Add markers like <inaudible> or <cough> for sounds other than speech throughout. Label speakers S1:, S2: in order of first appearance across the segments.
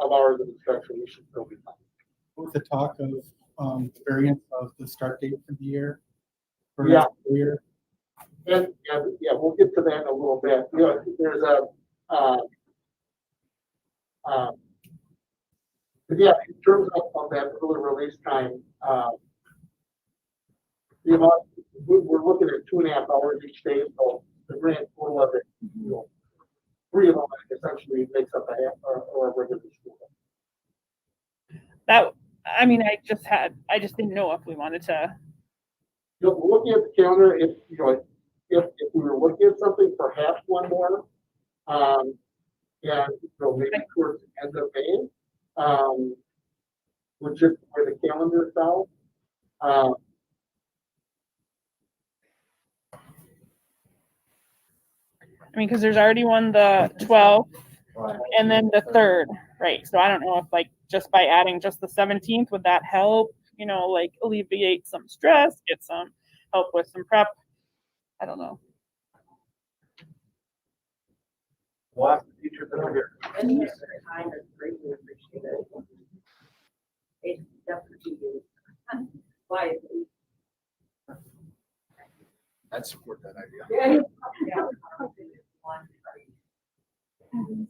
S1: of hours of instruction, we should still be fine.
S2: with the talk of um variance of the start date for the year. For
S1: Yeah.
S2: next year,
S1: And, and, yeah, we'll get to that in a little bit. You know, there's a, um, um, but yeah, in terms of, of that early release time, um, the amount, we, we're looking at two and a half hours each day, so the grand total of it, you know, three of them essentially makes up a half, or, or a regular school. day.
S3: That, I mean, I just had, I just didn't know if we wanted to,
S1: You know, looking at the calendar, if, you know, if, if we were looking at something, perhaps one more. Um, and, you know, maybe towards the end of May, um, which is where the calendar is out. Um,
S3: I mean, because there's already one, the 12th
S4: Right.
S3: and then the 3rd, right? So I don't know if like, just by adding just the 17th, would that help? You know, like alleviate some stress, get some help with some prep? I don't know.
S4: We'll ask the teachers that are here.
S5: Any extra time is greatly appreciated. It's definitely you. Why?
S4: I'd support that idea.
S5: Yeah.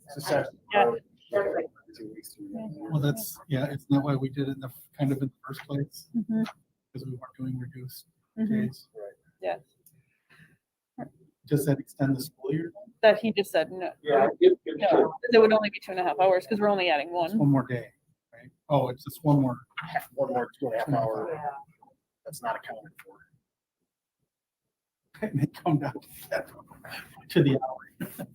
S4: It's a session.
S3: Yeah.
S4: Two weeks through that.
S2: well, that's, yeah, it's not why we did it in the, kind of in the first place,
S3: Mhm,
S2: because we weren't doing reduced
S4: Mm-hmm.
S3: mhm.
S2: days.
S3: Yeah,
S2: Does that extend the school year?
S3: that he just said no.
S1: yeah, it, it should.
S3: No, it would only be two and a half hours because we're only adding
S2: It's
S3: one.
S2: one more day, right? Oh, it's just one more.
S4: One more two and a half hour,
S5: Yeah.
S4: that's not accounted for.
S2: And <laughs> they come down to that- to the hour.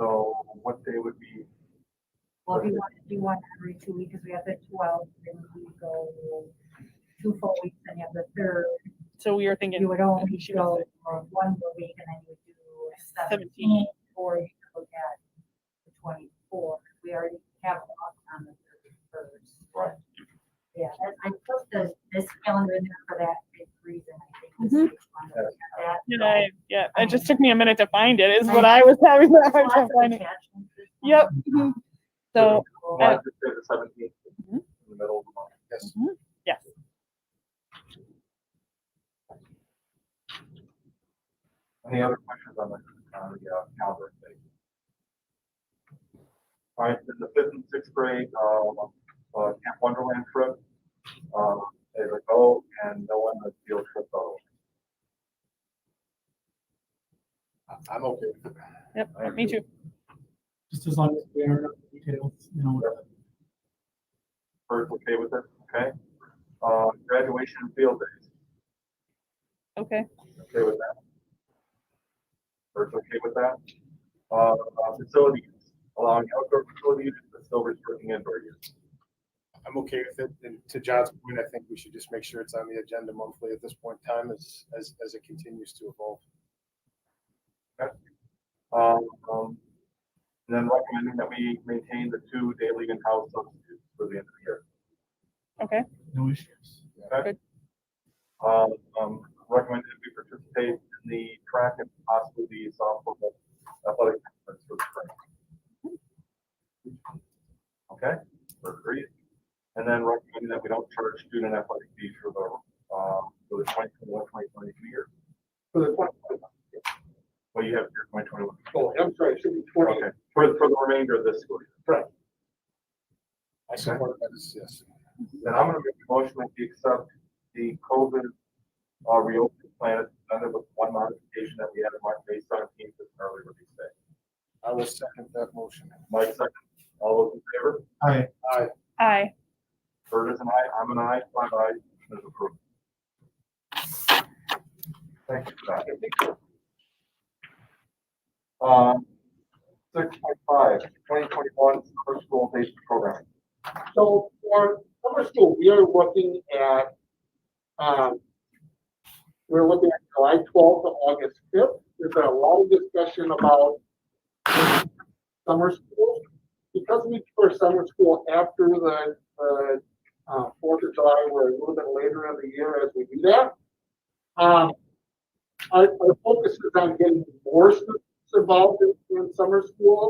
S4: So what day would be,
S6: Well, we want to do one every two weeks, because we have the twelfth, then we go two full weeks, then you have the third.
S3: So we were thinking,
S6: You would only go for one more week, and then you would do seventeen, or you could look at the twenty-four. We already have off on the thirty-first.
S4: Right.
S6: Yeah, and I put the, this calendar in there for that big reason, I think. this is one of them, that-
S3: you know, yeah, it just took me a minute to find it, is what I was having a hard <laughs>
S6: Lots
S3: time
S6: of
S3: finding.
S6: attachments this month.
S3: Yep. mhm. So,
S4: why is it the seventeenth
S3: Mhm.
S4: in the middle of the month? Yes.
S3: yes.
S4: Any other questions on the,
S7: Um,
S4: on the uh, calendar thing? All right, then the fifth and sixth grade, um, uh, Camp Wonderland trip. Um, they would go and no one would feel trip though. I'm okay.
S3: Yep, me too.
S2: Just as long as we are up to details, you know.
S4: First, okay with it, okay? Uh, graduation and field days,
S3: Okay.
S4: okay with that? First, okay with that? Uh, uh, facilities, allowing outdoor facilities, but still restricting indoor use.
S7: I'm okay with it. And to John's point, I think we should just make sure it's on the agenda monthly at this point in time as, as, as it continues to evolve.
S4: Um, um, and then recommending that we maintain the two daily in-house substitutes for the end of the year.
S3: Okay.
S2: No issues.
S4: Um, um, recommend that we participate in the track and possibly the softball athletic conference for the spring. Okay, we're agreed. And then recommending that we don't charge student athletic fees for the, um, for the twenty twenty-one, twenty twenty-two year.
S1: For the twenty twenty-one,
S4: Well, you have your twenty twenty-one.
S1: oh, I'm sorry, it should be twenty.
S4: Okay, for, for the remainder of this school year.
S7: I support that, as- yes.
S4: Then I'm gonna make a motion that we accept the COVID, uh, reopening plan as presented with one modification that we had in March, May seventeenth, as an early release day.
S7: I will second that motion.
S4: Mike second, all those in favor?
S2: All right,
S3: Aye.
S4: Bird is an aye, I'm an aye, five ayes, it is approved. Thank you for that. Um, six point five, twenty twenty-one summer school day program.
S1: So for summer school, we are looking at, um, we're looking at July twelfth to August fifth. There's been a long discussion about summer school. Because we do our summer school after the, the, uh, Fourth of July, we're a little bit later in the year as we do that. Um, our, our focus is on getting more students involved in, in summer school.